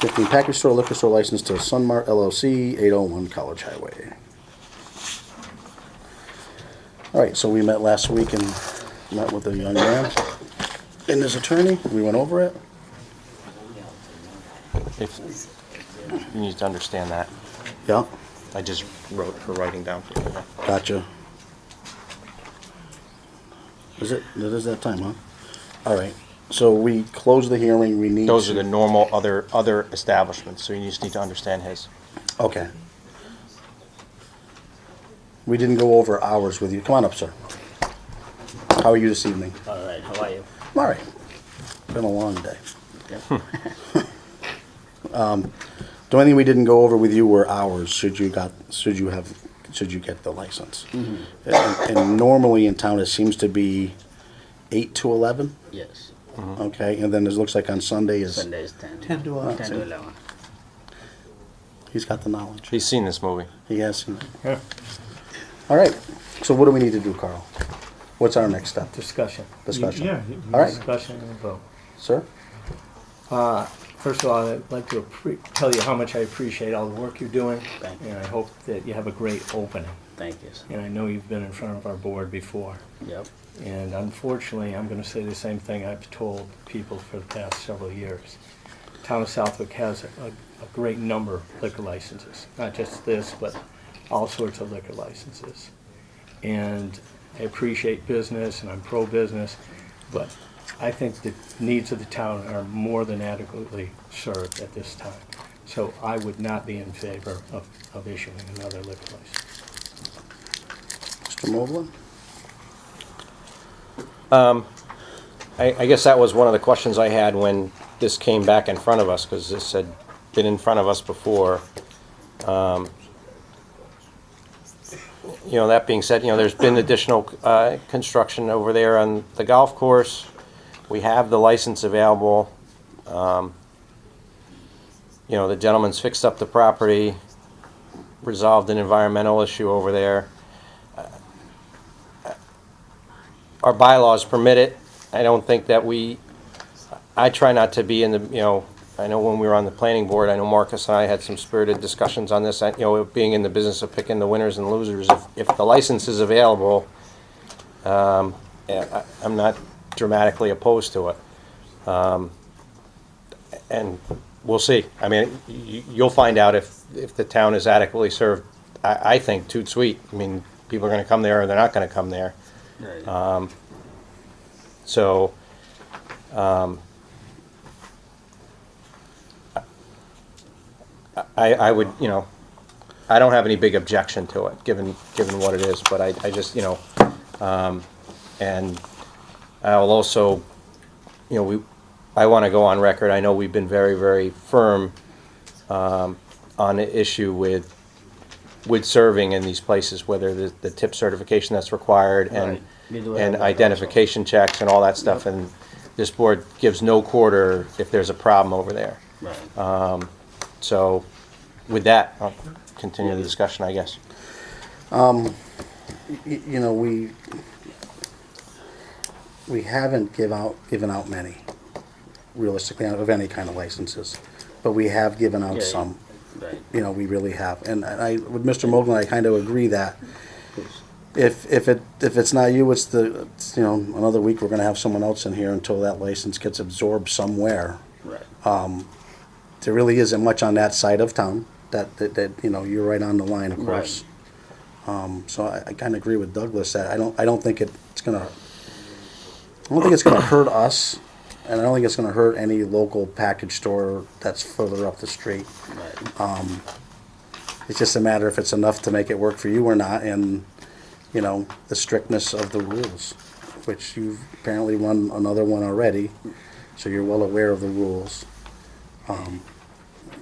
Fifteen, package store liquor store license to Sunmart LLC, eight oh one College Highway. All right, so we met last week and met with the young man and his attorney. We went over it. If, you need to understand that. Yeah, I just wrote her writing down for you. gotcha. Is it, it is that time, huh? All right, so we close the hearing. We need. Those are to- the normal other, other establishments, so you just need to understand his. Okay. We didn't go over hours with you. Come on up, sir. How are you this evening? All right, how are you? I'm All right. Been a long day. Um, The only thing we didn't go over with you were hours, should you got, should you have, should you get the license. And and normally in town, it seems to be eight to eleven, Yes. okay? And then it looks like on Sunday is, Sunday is 10. 10 to 11. 10 to 11. he's got the knowledge. He's seen this movie. He has. All right. So what do we need to do, Carl? What's our next step? Discussion. Discussion. Yeah. All right. Discussion and vote. Sir? First of all, I'd like to appre- tell you how much I appreciate all the work you're doing. Thank you. And I hope that you have a great opening. Thank you. sir. And I know you've been in front of our board before. Yep. And unfortunately, I'm going to say the same thing I've told people for the past several years. Town of Southwick has a, a great number of liquor licenses, not just this, but all sorts of liquor licenses. And I appreciate business and I'm pro-business, but I think the needs of the town are more than adequately served at this time. So I would not be in favor of, of issuing another liquor license. Mr. Moblin? I, I guess that was one of the questions I had when this came back in front of us, because this had been in front of us before. Um, You know, that being said, you know, there's been additional, uh, construction over there on the golf course. We have the license available. Um, You know, the gentleman's fixed up the property, resolved an environmental issue over there. our bylaws permit it. I don't think that we, I try not to be in the, you know, I know when we were on the planning board, I know Marcus and I had some spirited discussions on this, I- you know, being in the business of picking the winners and losers. If, if the license is available, um, I, I'm not dramatically opposed to it. Um, And we'll see. I mean, you, you'll find out if, if the town is adequately served. I, I think toot sweet. I mean, people are gonna come there or they're not gonna come there. Right. So, um, I, I would, you know, I don't have any big objection to it, given, given what it is, but I, I just, you know, um, and I'll also, you know, we, I want to go on record, I know we've been very, very firm, um, on the issue with, with serving in these places, whether the, the tip certification that's required and, Right. We do have and that also. identification checks and all that stuff, and this board gives no quarter if there's a problem over there. right. So with that, I'll continue the discussion, I guess. y- you know, we, we haven't give out, given out many, realistically, of any kind of licenses, but we have given out Yeah, some, right. you know, we really have. And I, with Mr. Mogul, I kind of agree that if, if it, if it's not you, it's the, it's, you know, another week, we're gonna have someone else in here until that license gets absorbed somewhere. Right. There really isn't much on that side of town, that, that, that, you know, you're right on the line, of Right. course. Um, So I, I kind of agree with Douglas that I don't, I don't think it's gonna, I don't think it's gonna hurt us, and I don't think it's gonna hurt any local package store that's further up the street. right. It's just a matter if it's enough to make it work for you or not, and, you know, the strictness of the rules, which you've apparently won another one already, so you're well aware of the rules. Um,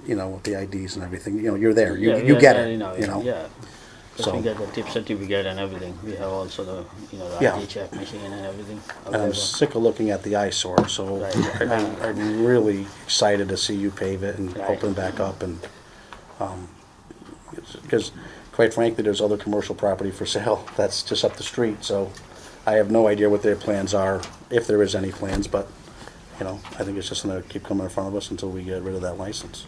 You know, with the IDs and everything, you know, you're there, you, Yeah, you yeah, get yeah, it, you know? Yeah. 'Cause So- we got the tip certificate and everything. We have also the, you know, the Yeah. ID check machine and everything. And I'm available. sick of looking at the eyesore, so Right. I- I- I'm really excited to see you pave it and Right. open back up and, because quite frankly, there's other commercial property for sale that's just up the street, so I have no idea what their plans are, if there is any plans, but you know, I think it's just gonna keep coming in front of us until we get rid of that license.